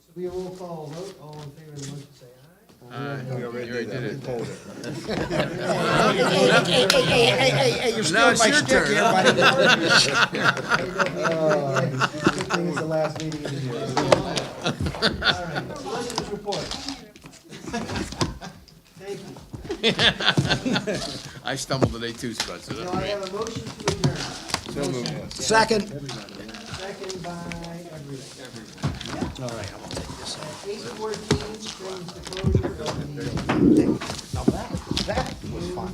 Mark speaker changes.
Speaker 1: It'll Be a roll call vote, all in favor of the motion, say aye.
Speaker 2: We already did that.
Speaker 3: Hey, hey, hey, hey, hey, hey, you're
Speaker 2: Now
Speaker 3: stealing
Speaker 2: it's
Speaker 3: my
Speaker 2: your
Speaker 3: shtick
Speaker 2: turn,
Speaker 3: here,
Speaker 2: huh?
Speaker 3: buddy.
Speaker 1: Good thing it's the last meeting of the year. All right, Solicitor's report. Thank you.
Speaker 2: I stumbled today too, Scott, so
Speaker 1: Do
Speaker 2: that's
Speaker 1: I
Speaker 2: great.
Speaker 1: have a motion to adjourn?
Speaker 3: Second.
Speaker 1: Second by everyone. Eight fourteen brings the closure of the
Speaker 3: That was fun.